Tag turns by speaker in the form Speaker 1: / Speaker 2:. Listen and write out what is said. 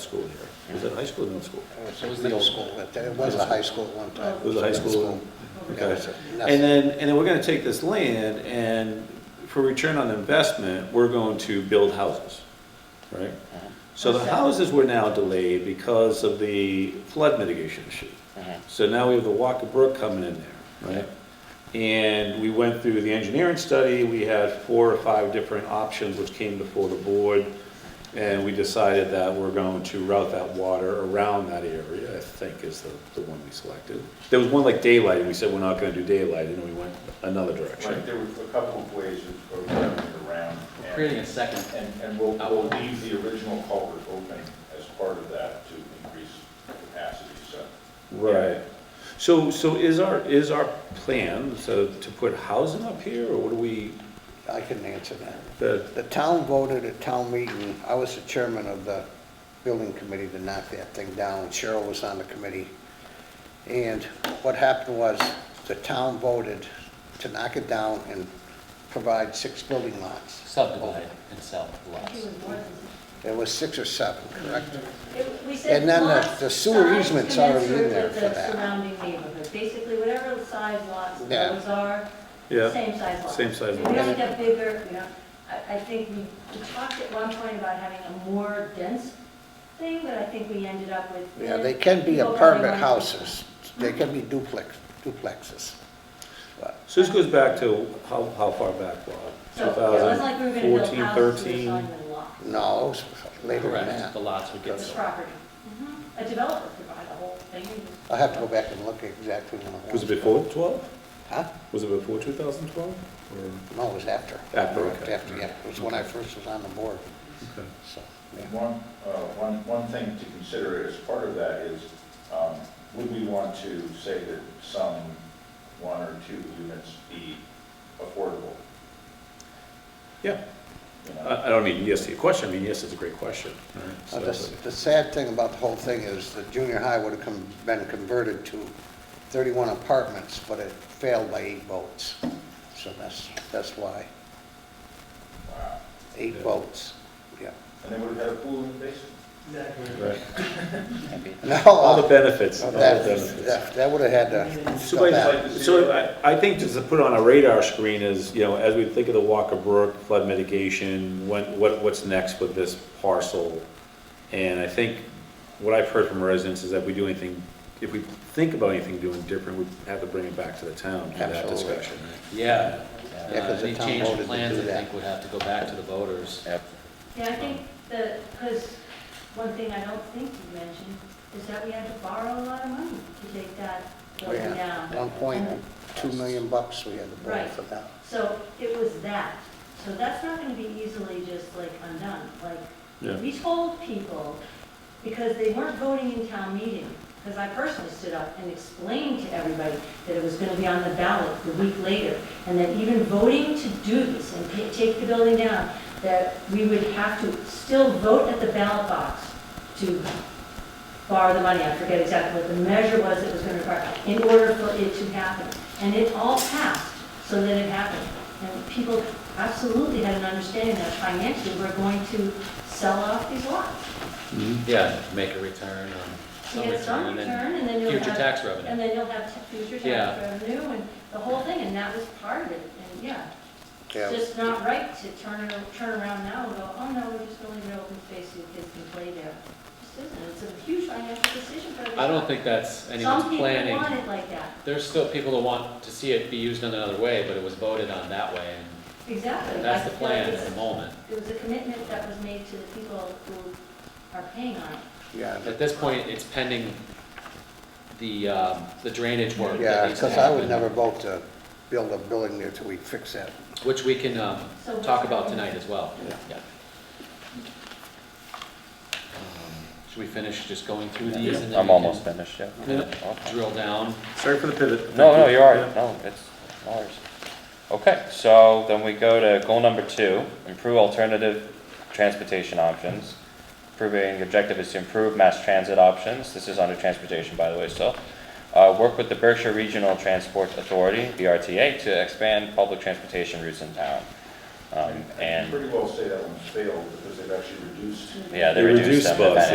Speaker 1: school here. Was it high school or middle school?
Speaker 2: It was the old school, but it was a high school at one time.
Speaker 1: It was a high school?
Speaker 2: Yeah, it
Speaker 1: Okay.
Speaker 2: was a-
Speaker 1: And then, and then we're gonna take this land and for return on investment, we're going to build houses, right? So the houses were now delayed because of the flood mitigation issue. So now we have the Walker Brook coming in there, right? And we went through the engineering study, we had four or five different options which came before the board. And we decided that we're going to route that water around that area, I think is the, the one we selected. There was one like daylight, and we said we're not gonna do daylight, and then we went another
Speaker 3: Right,
Speaker 1: direction.
Speaker 3: there was a couple of ways of of running it around. and-
Speaker 4: Creating a second,
Speaker 3: And, and we'll, we'll leave the original culvert open as part of that to increase capacity, so.
Speaker 1: Right. So, so is our, is our plan so to put housing up here, or what do we,
Speaker 2: Uh-huh. I can answer that.
Speaker 1: the,
Speaker 2: The town voted at town meeting, I was the chairman of the building committee to knock that thing down, Cheryl was on the committee. And what happened was, the town voted to knock it down and provide six building lots.
Speaker 4: subdivided itself lots.
Speaker 2: There was six or seven, correct?
Speaker 5: And
Speaker 2: then the- the sewer easements are in there for that.
Speaker 5: Surrounding neighborhood, basically whatever the size lots
Speaker 2: Yeah.
Speaker 5: those are,
Speaker 1: yeah,
Speaker 5: same size lots.
Speaker 1: Same size
Speaker 5: We don't
Speaker 2: lots.
Speaker 5: get bigger, we don't, I, I think we we talked at one point about having a more dense thing, but I think we ended up with.
Speaker 2: Yeah, they can be
Speaker 5: people probably
Speaker 2: apartment
Speaker 5: wanting-
Speaker 2: houses, they can be duplex, duplexes. But
Speaker 1: so this goes back to how, how far back, Bob?
Speaker 5: So it was like we were gonna build
Speaker 1: 2014,
Speaker 5: houses to
Speaker 1: 13.
Speaker 5: the size of the lot.
Speaker 2: No, it was later than
Speaker 4: Correct,
Speaker 2: that.
Speaker 4: the lots would get
Speaker 5: It's
Speaker 4: sold.
Speaker 5: property. Mm-hmm. A developer could buy the whole thing and just.
Speaker 2: I'll have to go back and look exactly when it
Speaker 1: Was
Speaker 2: was.
Speaker 1: it before 12?
Speaker 2: Huh?
Speaker 1: Was it before 2012?
Speaker 2: No, it was after.
Speaker 1: After, okay.
Speaker 2: After, yeah, it was when I first was on the board, so, yeah.
Speaker 3: And one, uh, one, one thing to consider as part of that is, um, would we want to say that some one or two units be affordable?
Speaker 1: Yeah,
Speaker 3: You know?
Speaker 4: Uh.
Speaker 1: I, I don't mean yes to your question, I mean, yes, it's a great question.
Speaker 2: Uh,
Speaker 1: So-
Speaker 2: The the sad thing about the whole thing is the junior high would have come, been converted to 31 apartments, but it failed by eight votes. So that's, that's why,
Speaker 3: Wow.
Speaker 2: eight
Speaker 1: Yeah.
Speaker 2: votes, yeah.
Speaker 3: And they would have had a pool in the basement.
Speaker 1: Right.
Speaker 4: That'd be-
Speaker 2: No,
Speaker 1: All the
Speaker 2: uh,
Speaker 1: benefits, all the
Speaker 2: that-
Speaker 1: benefits.
Speaker 2: That that would have had to
Speaker 1: So
Speaker 2: come back.
Speaker 1: I, so I, I think just to put on our radar screen is, you know, as we think of the Walker Brook flood mitigation, when, what, what's next with this parcel? And I think what I've heard from residents is that if we do anything, if we think about anything doing different, we have to bring it back to the town, have that
Speaker 2: Absolutely.
Speaker 1: discussion.
Speaker 4: Yeah.
Speaker 2: Yeah, 'cause the
Speaker 4: Any
Speaker 2: town
Speaker 4: change
Speaker 2: voted to
Speaker 4: in plans,
Speaker 2: do
Speaker 4: I
Speaker 2: that.
Speaker 4: think, would have to go back to the voters.
Speaker 5: Yeah, I think the, because one thing I don't think you mentioned is that we had to borrow a lot of money to take that building down.
Speaker 2: One point, two million bucks we had to borrow for that.
Speaker 5: So it was that. So that's not going to be easily just like undone.
Speaker 1: Yeah.
Speaker 5: Like, we told people, because they weren't voting in town meeting, because I personally stood up and explained to everybody that it was going to be on the ballot the week later, and that even voting to do this and ta- take the building down, that we would have to still vote at the ballot box to borrow the money, I forget exactly what the measure was that was going to require, in order for it to happen. And it all passed, so that it happened. And people absolutely had an understanding that financially, we're going to sell off these lots.
Speaker 4: Yeah, make a return on
Speaker 5: You
Speaker 4: some
Speaker 5: get some
Speaker 4: return and
Speaker 5: return, and then you'll
Speaker 4: future
Speaker 5: have,
Speaker 4: tax
Speaker 5: and
Speaker 4: revenue.
Speaker 5: then you'll have t- future
Speaker 4: Yeah.
Speaker 5: tax revenue, and the whole thing, and that was part of it, and yeah. It's
Speaker 2: Yeah,
Speaker 5: just not right to turn, it- turn around now and go, oh no, we're just going to leave it open space so kids can play there. It just isn't, it's a huge financial decision for the
Speaker 4: I don't
Speaker 5: town.
Speaker 4: think that's anyone's
Speaker 5: Some people
Speaker 4: planning.
Speaker 5: want it like that,
Speaker 4: There's still people that want to see it be used in another way, but it was voted on that way,
Speaker 5: exactly.
Speaker 4: and that's
Speaker 5: I
Speaker 4: the
Speaker 5: feel like
Speaker 4: plan
Speaker 5: it's
Speaker 4: at the moment.
Speaker 5: a- It was a commitment that was made to the people who are paying on it.
Speaker 2: yeah.
Speaker 4: At this point, it's pending the, um, the drainage work that
Speaker 2: Yeah,
Speaker 4: needs to
Speaker 2: because I would never
Speaker 4: happen,
Speaker 2: vote to build a building there till we fix that.
Speaker 4: which we can, um,
Speaker 5: So what's
Speaker 4: talk about
Speaker 5: happening?
Speaker 4: tonight as well.
Speaker 2: Yeah.
Speaker 4: Yeah. Um, Should we finish just going through these and then?
Speaker 6: I'm
Speaker 4: we can
Speaker 6: almost finished, yeah. Okay.
Speaker 4: Drill down.
Speaker 1: Sorry for the pivot.
Speaker 6: No, no, you're all right, no, it's ours. Okay, so then we go to goal number two, improve alternative transportation options. Improving, the objective is to improve mass transit options, this is under transportation, by the way, still. Uh, work with the Berkshire Regional Transport Authority, BRTA, to expand public transportation routes in town.
Speaker 3: I
Speaker 6: Um,
Speaker 3: can
Speaker 6: and,
Speaker 3: Pretty well say that one's failed because they've actually reduced
Speaker 6: yeah, they
Speaker 1: They
Speaker 6: reduced
Speaker 1: reduced
Speaker 6: them. if
Speaker 1: bus,